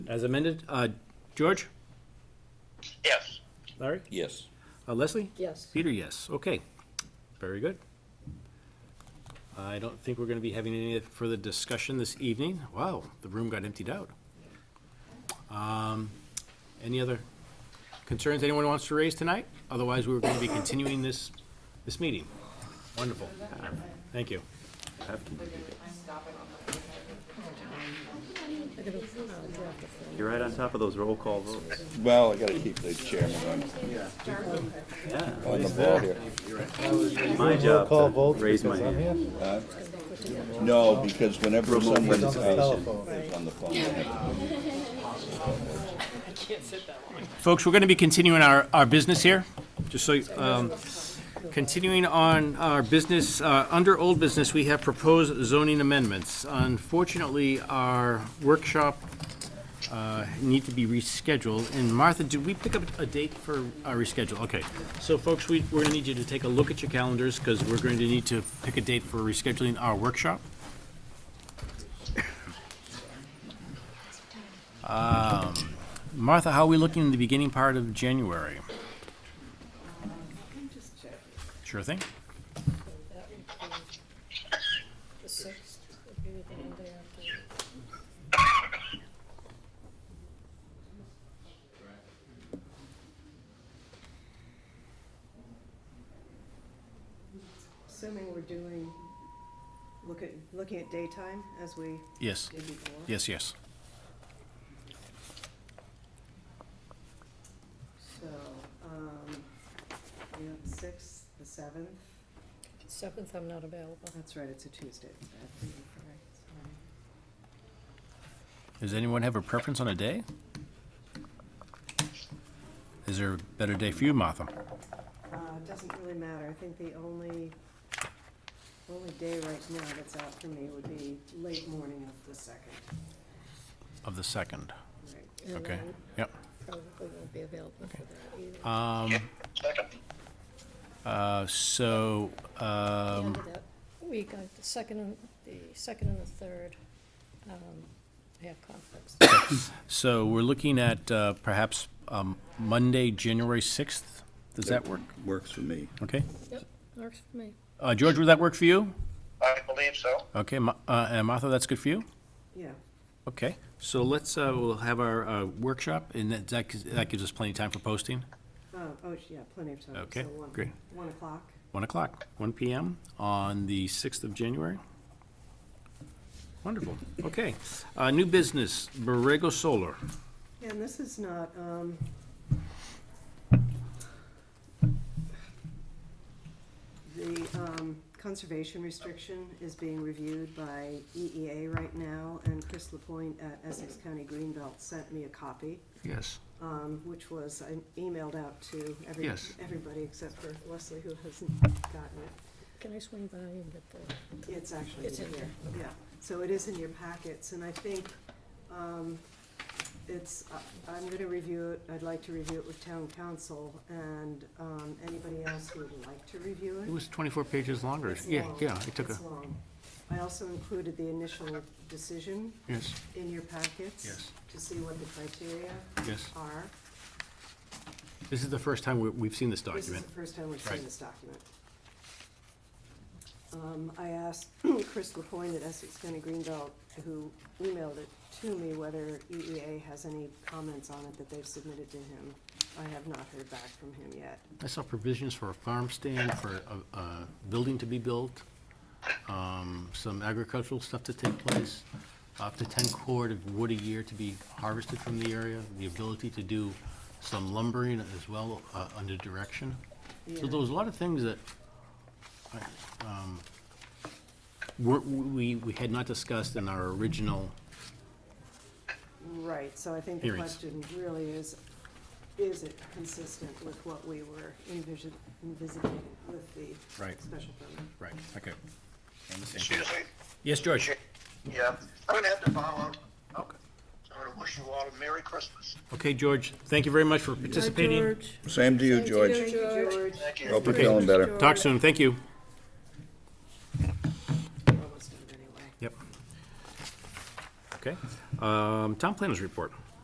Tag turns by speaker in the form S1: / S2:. S1: as amended. Uh, George?
S2: Yes.
S1: Larry?
S3: Yes.
S1: Uh, Leslie?
S4: Yes.
S1: Peter, yes. Okay. Very good. I don't think we're going to be having any further discussion this evening. Wow, the room got emptied out. Um, Any other concerns anyone wants to raise tonight? Otherwise, we're going to be continuing this, this meeting. Wonderful. Thank you.
S5: You're right on top of those roll call votes.
S3: Well, I gotta keep the chairman on,
S5: Yeah,
S3: on the ball here.
S5: my job
S6: Call
S5: to
S6: votes
S5: raise my
S6: because I'm
S5: hand.
S6: here.
S3: No, because whenever someone's
S6: Because of
S3: out
S6: the telephone.
S3: on the phone, I have to
S1: Folks, we're going to be continuing our, our business here, just so, you- um, continuing on our business, uh, under old business, we have proposed zoning amendments. Unfortunately, our workshop uh, need to be rescheduled, and Martha, did we pick up a date for our reschedule? Okay, so folks, we, we're going to need you to take a look at your calendars, because we're going to need to pick a date for rescheduling our workshop. Martha, how are we looking in the beginning part of January? Sure thing.
S4: The sixth would be the end day after.
S7: Assuming we're doing, look at, looking at daytime as we
S1: Yes,
S7: did before.
S1: yes, yes.
S7: So, um, we have the sixth, the seventh,
S4: Seventh, I'm not available.
S7: that's right, it's a Tuesday. That's right,
S1: Does anyone have a preference on a day? Is there a better day for you, Martha?
S7: sorry. Uh, it doesn't really matter, I think the only, only day right now that's out for me would be late morning of the second.
S1: Of the second,
S7: Right.
S4: And
S1: okay,
S4: I
S1: yep.
S4: Probably won't be available for that either.
S2: Second.
S1: Uh, so,
S4: The
S1: um,
S4: end of that Week, I- the second, and the second and the third, um, I have conflicts.
S1: so we're looking at, uh, perhaps, um, Monday, January sixth? Does that work?
S3: Works for me.
S1: Okay.
S4: Yep, works for me.
S1: Uh, George, would that work for you?
S2: I believe so.
S1: Okay, Ma- uh, and Martha, that's good for you?
S7: Yeah.
S1: Okay, so let's, uh, we'll have our, uh, workshop, and that, that gives- that gives us plenty of time for posting.
S7: Oh, oh, yeah, plenty of time.
S1: Okay,
S7: So one-
S1: great.
S7: One o'clock,
S1: One o'clock, one PM on the sixth of January. Wonderful, okay. Uh, new business, Borrego Solar.
S7: Yeah, and this is not, um, the, um, conservation restriction is being reviewed by EEA right now, and Chris Lapointe at Essex County Greenbelt sent me a copy,
S1: Yes.
S7: um, which was, I emailed out to every,
S1: Yes.
S7: everybody except for Leslie, who hasn't gotten it.
S4: Can I swing by and get the?
S7: It's actually
S4: It's
S7: in
S4: in
S7: here, yeah. So it is in your packets, and I think, um, it's, I- I'm gonna review it, I'd like to review it with town council and, um, anybody else who would like to review
S1: It
S7: it.
S1: was twenty-four pages longer.
S7: It's
S1: Yeah,
S7: long.
S1: yeah, I took a,
S7: It's long. I also included the initial decision
S1: yes,
S7: in your packets.
S1: Yes.
S7: To see what the criteria
S1: yes.
S7: are.
S1: This is the first time we, we've seen this
S7: This is
S1: document.
S7: the first time we've
S1: Right.
S7: seen this document. Um, I asked Chris Lapointe at Essex County Greenbelt, who emailed it to me, whether EEA has any comments on it that they've submitted to him. I have not heard back from him yet.
S1: I saw provisions for a farm stand, for a, a building to be built, um, some agricultural stuff to take place, up to ten cord of wood a year to be harvested from the area, the ability to do some lumbering as well, uh, under direction. So there was a lot of things that, I, um, were, we, we had not discussed in our original,
S7: Right, so I think the
S1: Hearings.
S7: question really is, is it consistent with what we were envision, envisioning with the
S1: Right.
S7: special permit?
S1: right, okay.
S2: Excuse me.
S1: Yes, George?
S2: Yeah, I'm gonna have to follow. Okay. I'm gonna wish you all a Merry Christmas.
S1: Okay, George, thank you very much for participating.
S4: George.
S3: Same to you,
S4: Same to
S3: George.
S4: you.
S7: Thank you,
S4: George.
S7: George.
S2: Thank you.
S3: Hope you're feeling better.
S1: Talk soon, thank you.
S7: We're almost done anyway.
S1: Yep. Okay, um, town planners report.